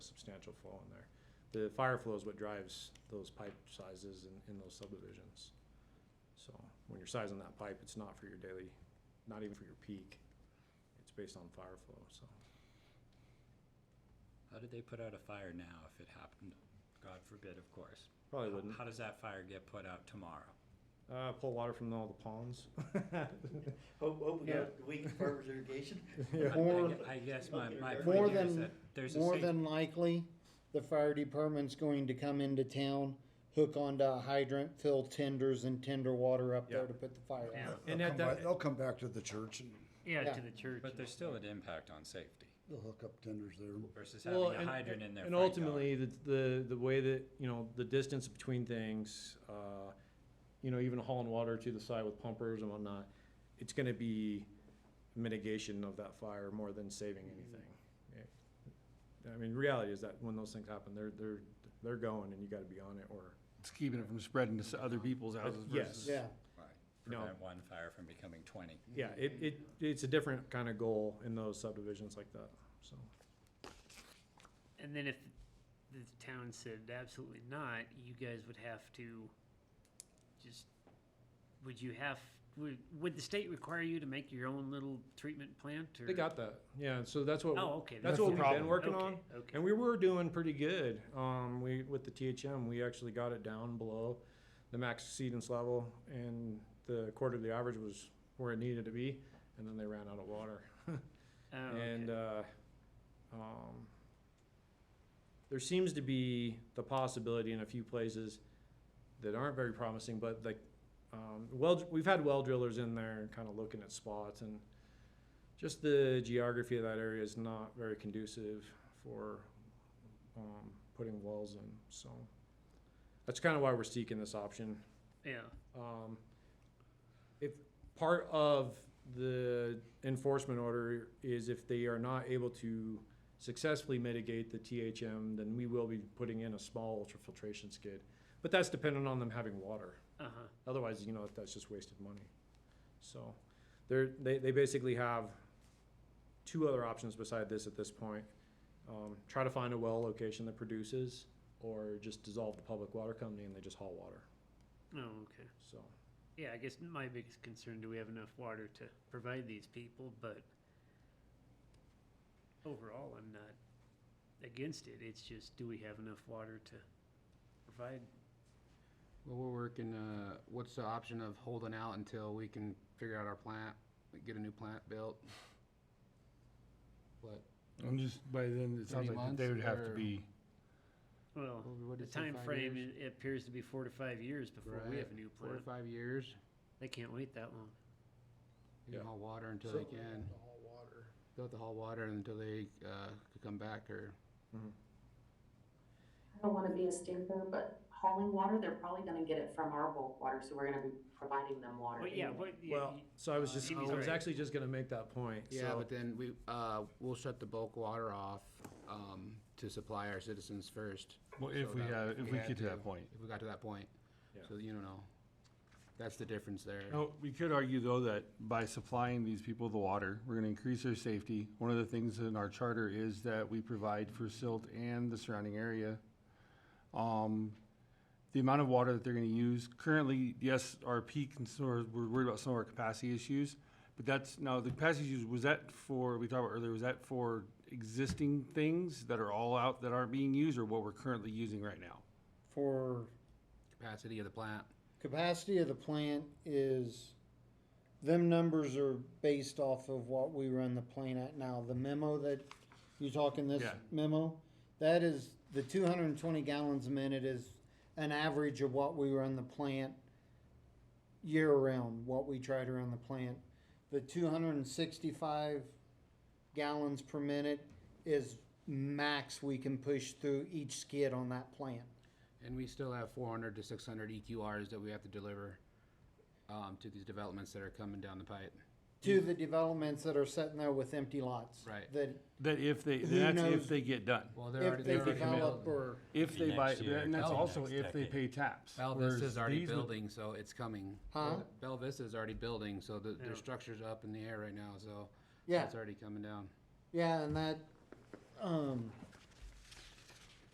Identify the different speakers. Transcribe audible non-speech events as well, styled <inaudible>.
Speaker 1: substantial flow in there. The fire flow is what drives those pipe sizes in, in those subdivisions. So when you're sizing that pipe, it's not for your daily, not even for your peak. It's based on fire flow, so.
Speaker 2: How did they put out a fire now if it happened? God forbid, of course.
Speaker 1: Probably
Speaker 2: How-
Speaker 1: wouldn't.
Speaker 2: How does that fire get put out
Speaker 3: <laughs>
Speaker 2: tomorrow?
Speaker 1: Uh, pull water from all the ponds.
Speaker 4: Hope, hope we
Speaker 1: Yeah.
Speaker 4: got weak farmers irrigation.
Speaker 1: Yeah.
Speaker 2: I- I
Speaker 3: Or-
Speaker 2: gue- I guess my, my
Speaker 4: More
Speaker 2: point here is
Speaker 3: than-
Speaker 2: that there's a
Speaker 3: More
Speaker 2: safety.
Speaker 3: than likely, the fire department's going to come into town, hook onto a hydrant, fill tenders and tender water up there
Speaker 1: Yeah.
Speaker 3: to put the fire out.
Speaker 1: And
Speaker 5: They'll
Speaker 1: at
Speaker 5: come
Speaker 1: that-
Speaker 5: back- They'll come back to the church and
Speaker 4: Yeah,
Speaker 3: to
Speaker 4: the church.
Speaker 2: But there's still an impact on safety
Speaker 5: they'll hook up tenders there.
Speaker 2: versus having
Speaker 1: Well,
Speaker 2: a
Speaker 1: and-
Speaker 2: hydrant in their
Speaker 1: And
Speaker 2: front
Speaker 1: ultimately, the, the, the way that, you know, the distance between things, uh, you know, even hauling water to the side with pumpers and whatnot, it's gonna be mitigation of that fire more than saving
Speaker 6: Mm-hmm.
Speaker 1: anything. Yeah. I mean, reality is that when those things happen, they're, they're, they're going and you gotta be on it or,
Speaker 6: It's keeping it from spreading to s- other people's houses
Speaker 1: Uh, yes.
Speaker 6: versus.
Speaker 3: Yeah,
Speaker 2: yard. Right.
Speaker 1: No.
Speaker 2: Prevent one fire from becoming twenty.
Speaker 1: yeah, it, it, it's a different kinda goal in those subdivisions like that, so.
Speaker 7: And then if the town said absolutely not, you guys would have to just, would you have, would, would the state require you to make your own little treatment plant or?
Speaker 1: They got that, yeah, so that's what,
Speaker 7: Oh, okay.
Speaker 1: that's
Speaker 6: the
Speaker 1: what we've been
Speaker 6: problem.
Speaker 1: working
Speaker 7: okay,
Speaker 1: on.
Speaker 7: Okay.
Speaker 1: And we were doing pretty good. Um, we with the THM, we actually got it down below the max exceedance level, and the quarterly average was where it needed to be. And then they ran out of water,
Speaker 7: Oh,
Speaker 1: and
Speaker 7: okay.
Speaker 1: uh, um, there seems to be the possibility in a few places that aren't very promising, but like um, well, we've had well drillers in there and kind of looking at spots and just the geography of that area is not very conducive for um, putting wells in. So that's kind of why we're seeking this option.
Speaker 7: Yeah,
Speaker 1: Um, if part of the enforcement order is if they are not able to successfully mitigate the THM, then we will be putting in a small ultrafiltration skid. But that's dependent on them having water.
Speaker 7: uh-huh.
Speaker 1: Otherwise, you know, that's just wasted money. So they're, they, they basically have two other options beside this at this point. Um, try to find a well location that produces or just dissolve the public water company and they just haul water.
Speaker 7: Oh, okay.
Speaker 1: So,
Speaker 7: Yeah, I guess my biggest concern, do we have enough water to provide these people, but overall, I'm not against it. It's just, do we have enough water to provide?
Speaker 6: Well, we're working, uh, what's the option of holding out until we can figure out our plant, we get a new plant built? What,
Speaker 5: I'm just, by then, it
Speaker 6: sounds Thirty like they months would have to or- be-
Speaker 7: Well,
Speaker 6: what
Speaker 7: The
Speaker 6: is it,
Speaker 7: time
Speaker 6: five
Speaker 7: frame
Speaker 6: years?
Speaker 7: it appears to be four to five years before we have a new
Speaker 6: Four to
Speaker 7: plant.
Speaker 6: five years,
Speaker 7: They can't wait that long.
Speaker 6: they
Speaker 1: Yeah.
Speaker 6: can haul water until they can, they'll have to haul water until they, uh, could come back or.
Speaker 8: I don't want to be a stinker, but hauling water, they're probably going to get it from our bulk water, so we're going to be providing them water.
Speaker 7: But yeah,
Speaker 8: anyway.
Speaker 7: what, yeah,
Speaker 1: well,
Speaker 7: y-
Speaker 1: so I was just,
Speaker 7: Uh,
Speaker 1: I was actually just gonna make that point.
Speaker 6: Yeah,
Speaker 1: So-
Speaker 6: but then we, uh, we'll shut the bulk water off, um, to supply our citizens first.
Speaker 9: Well,
Speaker 6: So
Speaker 9: if we
Speaker 6: that-
Speaker 9: have,
Speaker 6: if
Speaker 9: if
Speaker 6: we
Speaker 9: we
Speaker 6: had
Speaker 9: get to
Speaker 6: to.
Speaker 9: that point.
Speaker 6: if we got to that point.
Speaker 1: Yeah.
Speaker 6: So you don't know. That's the difference there.
Speaker 9: No, we could argue though that by supplying these people the water, we're gonna increase their safety. One of the things in our charter is that we provide for silt and the surrounding area. Um, the amount of water that they're gonna use, currently, yes, our peak and some of our- we're worried about some of our capacity issues. But that's, now, the capacity issues, was that for, we talked about earlier, was that for existing things that are all out that aren't being used or what we're currently using right now?
Speaker 3: for
Speaker 6: Capacity of the plant.
Speaker 3: capacity of the plant is, them numbers are based off of what we run the plant at now. The memo that, you talking this
Speaker 9: Yeah.
Speaker 3: memo? That is, the two hundred and twenty gallons a minute is an average of what we run the plant year round, what we try to run the plant. The two hundred and sixty-five gallons per minute is max we can push through each skid on that plant.
Speaker 6: And we still have four hundred to six hundred EQRs that we have to deliver um, to these developments that are coming down the pipe.
Speaker 3: to the developments that are sitting there with empty lots.
Speaker 6: Right.
Speaker 3: That
Speaker 9: That if they,
Speaker 3: Who
Speaker 9: that's if
Speaker 3: knows?
Speaker 9: they get done.
Speaker 6: Well, they're already,
Speaker 3: if they
Speaker 6: they're already
Speaker 3: develop
Speaker 6: building.
Speaker 3: or,
Speaker 9: If
Speaker 2: Maybe
Speaker 9: they buy,
Speaker 2: next year,
Speaker 9: and that's
Speaker 2: maybe
Speaker 9: also
Speaker 2: next
Speaker 9: if they
Speaker 2: decade.
Speaker 9: pay taps.
Speaker 6: Bell
Speaker 9: whereas
Speaker 6: Vista's already
Speaker 9: these would-
Speaker 6: building, so it's coming.
Speaker 3: Huh?
Speaker 6: Bell Vista's already building, so the,
Speaker 7: Yeah.
Speaker 6: their structure's up in the air right now, so
Speaker 3: yeah,
Speaker 6: it's already coming down.
Speaker 3: yeah, and that, um,